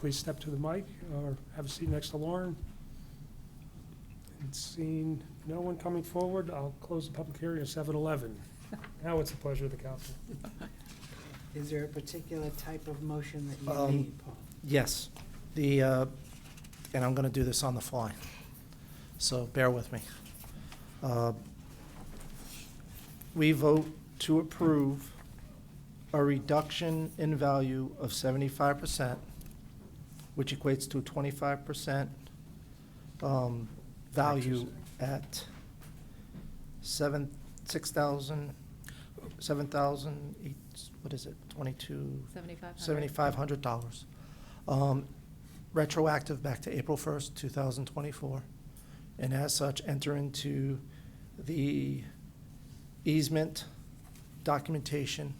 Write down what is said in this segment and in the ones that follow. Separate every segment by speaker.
Speaker 1: Please step to the mic or have a seat next to Lauren. And seeing no one coming forward, I'll close the public hearing at seven eleven. Now it's the pleasure of the council.
Speaker 2: Is there a particular type of motion that you
Speaker 3: Um,
Speaker 2: need, Paul?
Speaker 3: Yes, the, uh, and I'm going to do this on the fly, so bear with me. Uh, We vote to approve a reduction in value of 75%, which equates to 25% um, value at seven, 6,000, 7,000, eight- what is it, 22?
Speaker 4: Seventy-five hundred.
Speaker 3: Seventy-five hundred dollars. Um, Retroactive back to April first, two thousand twenty-four. And as such, enter into the easement documentation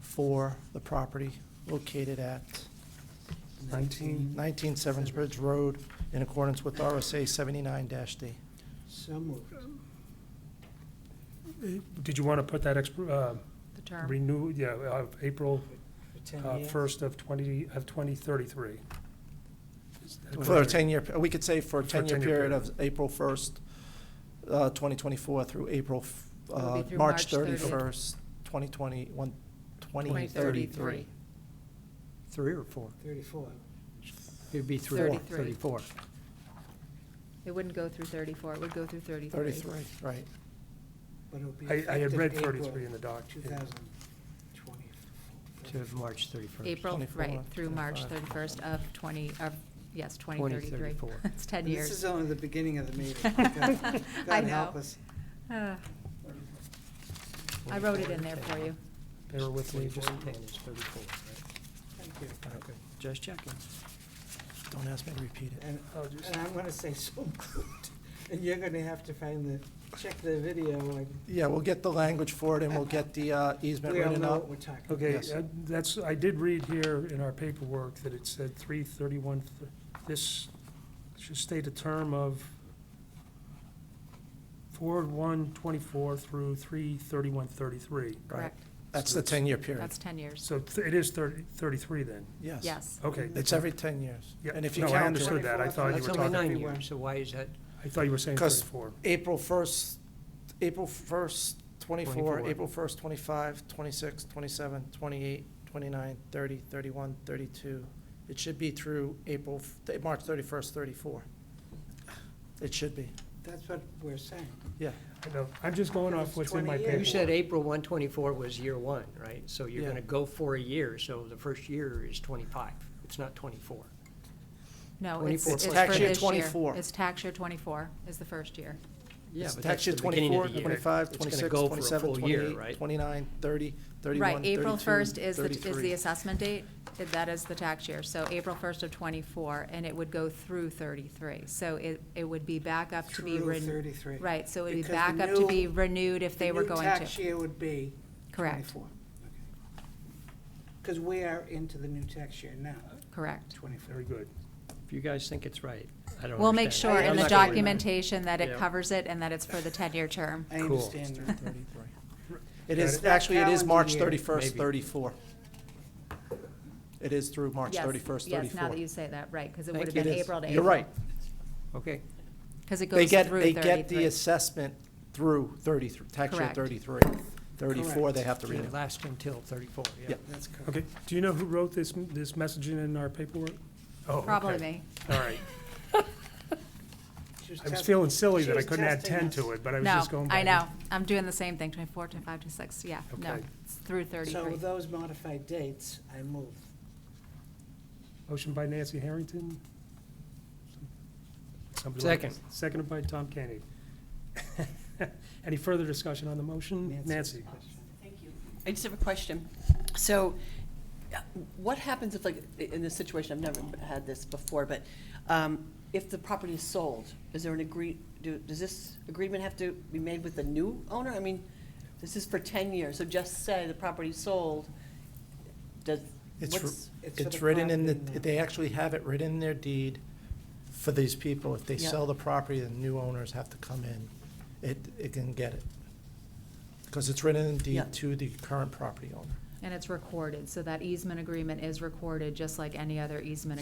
Speaker 3: for the property located at
Speaker 2: Mm-hmm.
Speaker 1: Nineteen.
Speaker 3: nineteen Severns Bridge Road in accordance with RSA seventy-nine D.
Speaker 2: So moved.
Speaker 1: Eh, Did you want to put that exp- uh,
Speaker 4: The term.
Speaker 1: renew, yeah, uh, April
Speaker 2: For 10
Speaker 1: uh,
Speaker 2: years?
Speaker 1: first of twenty, of twenty thirty-three?
Speaker 3: For a ten-year, we could say for a ten-year period of April first, uh, twenty twenty-four through April, f-
Speaker 4: It'll be
Speaker 3: uh,
Speaker 4: through
Speaker 3: March
Speaker 4: March 30th.
Speaker 3: thirty-first, twenty twenty-one, twenty
Speaker 4: 2033.
Speaker 3: thirty-three. Three or four?
Speaker 2: 34.
Speaker 5: It'd be three.
Speaker 4: Thirty-three.
Speaker 5: Thirty-four.
Speaker 4: It wouldn't go through thirty-four, it would go through thirty-three.
Speaker 3: Thirty-three, right.
Speaker 2: But it'll be
Speaker 1: I, I had
Speaker 2: effective
Speaker 1: read
Speaker 2: April
Speaker 1: thirty-three in the doc. yeah.
Speaker 2: 2024.
Speaker 5: To March thirty-first.
Speaker 4: April,
Speaker 3: 24,
Speaker 4: right, through March
Speaker 3: 25.
Speaker 4: thirty-first of twenty, of, yes, twenty thirty-three.
Speaker 5: 2034.
Speaker 4: It's ten
Speaker 2: And This is
Speaker 4: years.
Speaker 2: only the beginning of the meeting. God-
Speaker 4: I
Speaker 2: God help
Speaker 4: know.
Speaker 2: us.
Speaker 4: Ah. I wrote it in there for you.
Speaker 1: Bear with me just a moment.
Speaker 5: Thirty-four, right?
Speaker 2: Thank you.
Speaker 5: Okay, just checking.
Speaker 3: Don't ask me to repeat it.
Speaker 2: And
Speaker 1: I'll just-
Speaker 2: and I'm going to say so moved. And you're going to have to find the, check the video and
Speaker 3: Yeah, we'll get the language for it and we'll get the uh, easement
Speaker 2: we all
Speaker 3: written
Speaker 2: know what
Speaker 3: up.
Speaker 2: we're talking about.
Speaker 1: Okay,
Speaker 3: Yes.
Speaker 1: uh, that's, I did read here in our paperwork that it said three thirty-one, this should state a term of four one twenty-four through three thirty-one thirty-three.
Speaker 3: Right.
Speaker 4: Correct.
Speaker 3: That's the ten-year period,
Speaker 4: That's ten years.
Speaker 1: So th- it is thirty, thirty-three then?
Speaker 3: yes.
Speaker 4: Yes.
Speaker 1: Okay.
Speaker 3: It's every ten years.
Speaker 1: Yeah,
Speaker 3: And if you
Speaker 1: no, I
Speaker 3: count it,
Speaker 1: understood that. I thought you
Speaker 5: That's
Speaker 1: were talking,
Speaker 5: only nine
Speaker 2: Everywhere.
Speaker 5: years, so why is that?
Speaker 1: I thought you were saying
Speaker 3: 'Cause-
Speaker 1: thirty-four.
Speaker 3: April first, April first, twenty-four,
Speaker 5: 24.
Speaker 3: April first, twenty-five, twenty-six, twenty-seven, twenty-eight, twenty-nine, thirty, thirty-one, thirty-two. It should be through April, f- th- March thirty-first, thirty-four. It should be,
Speaker 2: That's what we're saying.
Speaker 3: yeah.
Speaker 1: I know. I'm just going off what's in my
Speaker 2: 20 years.
Speaker 1: paperwork.
Speaker 5: You said April one twenty-four was year one, right? So you're
Speaker 3: Yeah.
Speaker 5: gonna go for a year, so the first year is twenty-five, it's not twenty-four.
Speaker 4: No, it's,
Speaker 5: 24.
Speaker 4: it's for this
Speaker 5: It's
Speaker 4: year.
Speaker 3: tax year 24.
Speaker 4: It's tax year twenty-four is the first year.
Speaker 5: Yeah,
Speaker 3: It's
Speaker 5: but
Speaker 3: tax
Speaker 5: that's the
Speaker 3: year
Speaker 5: beginning
Speaker 3: twenty-four,
Speaker 5: of the year.
Speaker 3: twenty-five,
Speaker 5: It's gonna
Speaker 3: twenty-six,
Speaker 5: go for a
Speaker 3: twenty-seven,
Speaker 5: full year,
Speaker 3: twenty-eight,
Speaker 5: right?
Speaker 3: twenty-nine, thirty,
Speaker 4: Right,
Speaker 3: thirty-one,
Speaker 4: April first
Speaker 3: thirty-two,
Speaker 4: is the, is the
Speaker 3: thirty-three.
Speaker 4: assessment date, that is the tax year, so April first of twenty-four, and it would go through thirty-three, so it, it would be back up to be
Speaker 2: Through
Speaker 4: renewed.
Speaker 2: 33.
Speaker 4: Right, so it would
Speaker 2: Because
Speaker 4: be
Speaker 2: the
Speaker 4: back up to be
Speaker 2: new-
Speaker 4: renewed if they were going
Speaker 2: The
Speaker 4: to.
Speaker 2: new tax year would be
Speaker 4: Correct,
Speaker 2: 24. Because we are into the new tax year now,
Speaker 4: correct.
Speaker 2: 24.
Speaker 1: Very good.
Speaker 5: If you guys think it's right, I don't understand.
Speaker 4: We'll make sure in
Speaker 2: I'm
Speaker 4: the
Speaker 2: not going
Speaker 4: documentation that it
Speaker 5: Yeah.
Speaker 4: covers it and that it's for the ten-year term.
Speaker 2: I
Speaker 5: Cool.
Speaker 2: understand that.
Speaker 3: It
Speaker 1: Got
Speaker 3: is,
Speaker 1: it.
Speaker 3: actually, it is
Speaker 2: Calendar
Speaker 3: March
Speaker 2: year.
Speaker 3: thirty-first,
Speaker 5: Maybe.
Speaker 3: thirty-four. It is through March
Speaker 4: Yes,
Speaker 3: thirty-first,
Speaker 4: Yes, now
Speaker 3: thirty-four.
Speaker 4: that you say that, right, because it
Speaker 5: Thank
Speaker 4: would have
Speaker 5: you.
Speaker 4: been
Speaker 3: It is.
Speaker 4: April to April.
Speaker 3: You're right.
Speaker 5: Okay,
Speaker 4: Because it
Speaker 3: They
Speaker 4: goes
Speaker 3: get,
Speaker 4: through
Speaker 3: they get the
Speaker 4: thirty-three.
Speaker 3: assessment through thirty-three, tax year
Speaker 4: Correct.
Speaker 3: thirty-three. Thirty-four,
Speaker 2: Correct.
Speaker 3: they have to renew.
Speaker 5: it lasts until thirty-four, yeah.
Speaker 3: Yeah.
Speaker 2: That's correct.
Speaker 1: Okay, do you know who wrote this, this messaging in our paperwork? Oh, okay.
Speaker 4: Probably me.
Speaker 1: All right.
Speaker 2: She was
Speaker 1: I was
Speaker 2: test-
Speaker 1: feeling silly
Speaker 2: she
Speaker 1: that I
Speaker 2: was
Speaker 1: couldn't add
Speaker 2: testing
Speaker 1: ten
Speaker 2: us.
Speaker 1: to it, but I was
Speaker 4: No,
Speaker 1: just going by.
Speaker 4: I know, I'm doing the same thing, twenty-four, twenty-five, twenty-six, yeah, no,
Speaker 1: Okay.
Speaker 4: it's through
Speaker 2: So
Speaker 4: thirty-three.
Speaker 2: with those modified dates, I move.
Speaker 1: Motion by Nancy Harrington. Somebody like-
Speaker 5: Second.
Speaker 1: Seconded by Tom Kenny. Any further discussion on the motion?
Speaker 2: Nancy's
Speaker 1: Nancy?
Speaker 2: question.
Speaker 6: I just have a question. So uh, what happens if, like, in this situation, I've never had this before, but um, if the property is sold, is there an agree, do- does this agreement have to be made with the new owner? I mean, this is for 10 years, so just say the property's sold, does,
Speaker 3: It's for-
Speaker 6: what's?
Speaker 2: for
Speaker 3: It's
Speaker 2: the
Speaker 3: written in the,
Speaker 2: property now.
Speaker 3: they actually have it written in their deed for these people. If they
Speaker 6: Yeah.
Speaker 3: sell the property, the new owners have to come in. It, it can get it. Because it's written in the
Speaker 6: Yeah.
Speaker 3: deed to the current property owner.
Speaker 4: And it's recorded, so that easement agreement is recorded, just like any other easement